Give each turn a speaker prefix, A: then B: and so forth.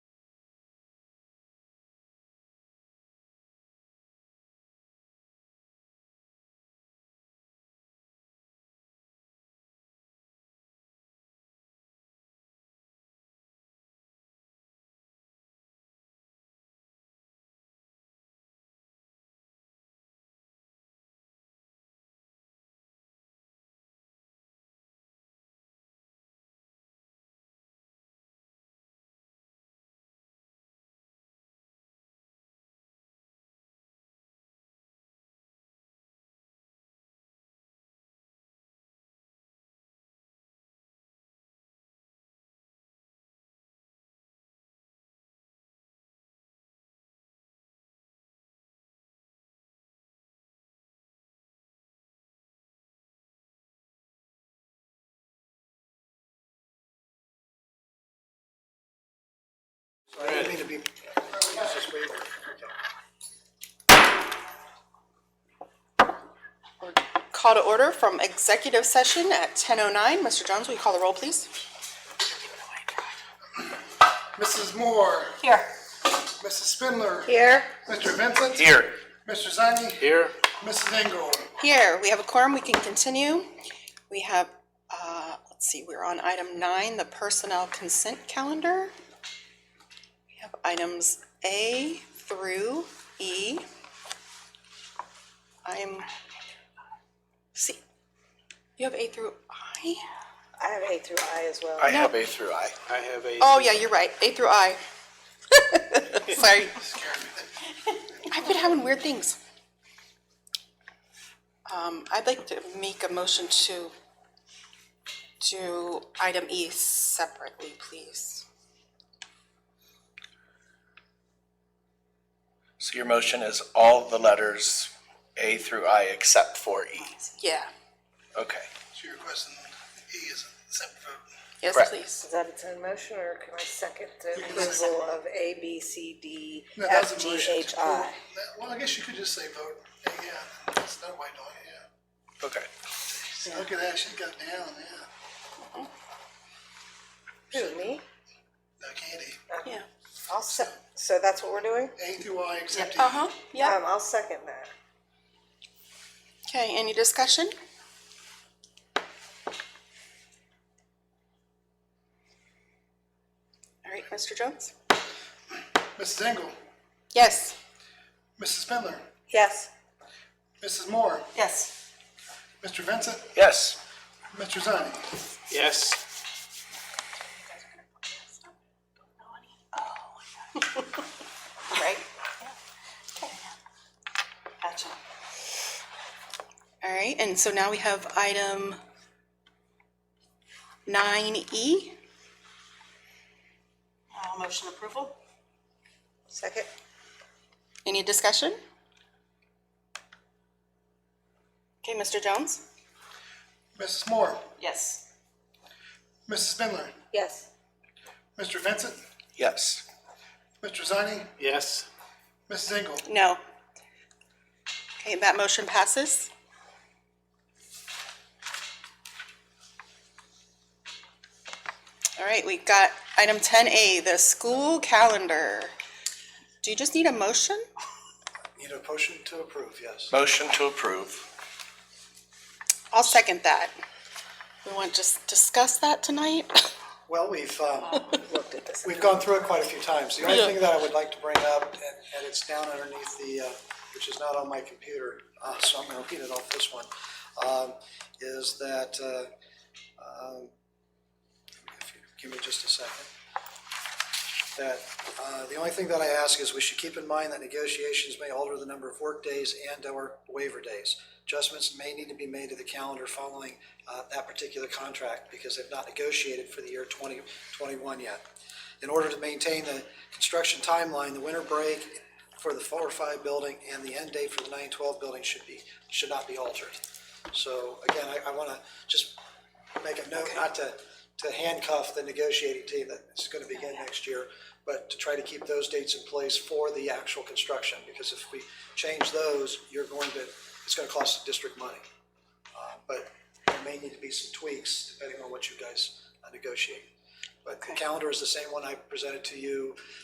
A: So I didn't mean to be, it's just way over.
B: Call to order from executive session at ten oh nine. Mr. Jones, will you call the roll, please?
A: Mrs. Moore,
B: Here.
A: Mrs. Spindler,
B: Here.
A: Mr. Vincent.
C: Here.
A: Mr. Zani.
C: Here.
A: Mrs. Engel.
B: Here, we have a quorum, we can continue. We have, uh, let's see, we're on item nine, the personnel consent calendar. We have items A through E. I'm, see, you have A through I?
D: I have A through I as well.
C: I have A through I. I have A.
B: Oh, yeah, you're right, A through I. Sorry. I've been having weird things. Um, I'd like to make a motion to do item E separately, please.
C: So your motion is all the letters A through I except for E.
B: Yeah,
C: Okay.
A: So your question, E is separate vote.
B: yes,
C: Correct.
B: please.
D: Is that its own motion, or can I second the approval of A, B, C, D,
A: No, that's a
D: F, G,
A: motion.
D: H, I?
A: Well, I guess you could just say vote, yeah, that's not why doing it, yeah.
C: Okay.
A: See, look at that, she got down, yeah.
D: Who, me?
A: No candy.
B: Yeah.
D: I'll se- so that's what we're doing?
A: A through I except E.
B: Uh-huh, yeah.
D: Um, I'll second that.
B: Okay, any discussion? All right, Mr. Jones?
D: Oh.
A: Mrs. Engel,
B: Yes.
A: Mrs. Spindler,
D: Yes.
A: Mrs. Moore,
B: Yes.
A: Mr. Vincent,
C: Yes.
A: Mr. Zani.
C: Yes.
B: Right? Gotcha. All right, and so now we have item nine E. Uh, Motion approval.
D: Second?
B: Any discussion? Okay, Mr. Jones?
A: Mrs. Moore,
B: Yes.
A: Mrs. Spindler,
D: Yes.
A: Mr. Vincent,
C: Yes.
A: Mr. Zani,
C: Yes.
A: Mrs. Engel.
B: No. Okay, that motion passes. All right, we got item ten A, the school calendar. Do you just need a motion?
A: Need a motion to approve, yes.
C: Motion to approve.
B: I'll second that. We want to just discuss that tonight?
E: Well, we've, um,
D: Looked at this.
E: we've gone through it quite a few times. The only thing that I would like to bring up, and, and it's down underneath the, uh, which is not on my computer, uh, so I'm gonna repeat it off this one, um, is that, uh, um, if you give me just a second. That, uh, the only thing that I ask is we should keep in mind that negotiations may alter the number of work days and/or waiver days. Adjustments may need to be made to the calendar following, uh, that particular contract because they've not negotiated for the year twenty twenty-one yet. In order to maintain the construction timeline, the winter break for the four or five building and the end date for the nine twelve building should be, should not be altered. So again, I, I wanna just make a note not to, to handcuff the negotiating team that is gonna begin next year, but to try to keep those dates in place for the actual construction, because if we change those, you're going to, it's gonna cost the district money. Uh, But there may need to be some tweaks depending on what you guys uh, negotiate. But the calendar is the same one I presented to you